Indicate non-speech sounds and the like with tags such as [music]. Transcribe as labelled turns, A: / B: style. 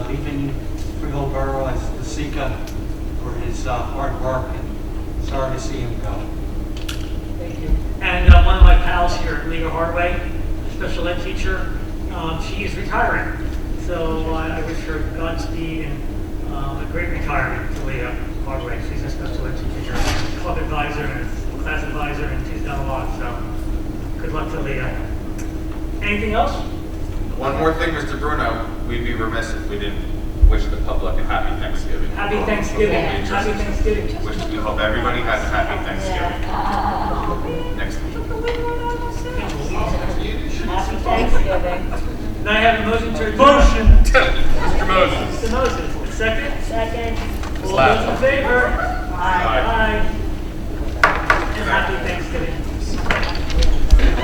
A: Greenville Borough as the Sika for his uh, hard work, and sorry to see him go.
B: Thank you.
C: And uh, one of my pals here, Lena Hardway, special ed teacher, um, she is retiring. So uh, I wish her Godspeed and um, a great retirement to Leah Hardway. She's a special ed teacher, club advisor, and class advisor, and she's done a lot, so good luck to Leah. Anything else?
D: One more thing, Mr. Bruno, we'd be remiss if we didn't wish the public a happy Thanksgiving.
C: Happy Thanksgiving.
D: Before we adjourn.
C: Happy Thanksgiving.
D: Wish, we hope everybody has a happy Thanksgiving next week. [laughs]
B: Happy Thanksgiving.
C: Now I have a motion to adjourn. Motion.
D: Mr. Moses.
C: Mr. Moses, second.
B: Second.
C: All those in favor?
D: Aye.
C: Aye. And happy Thanksgiving.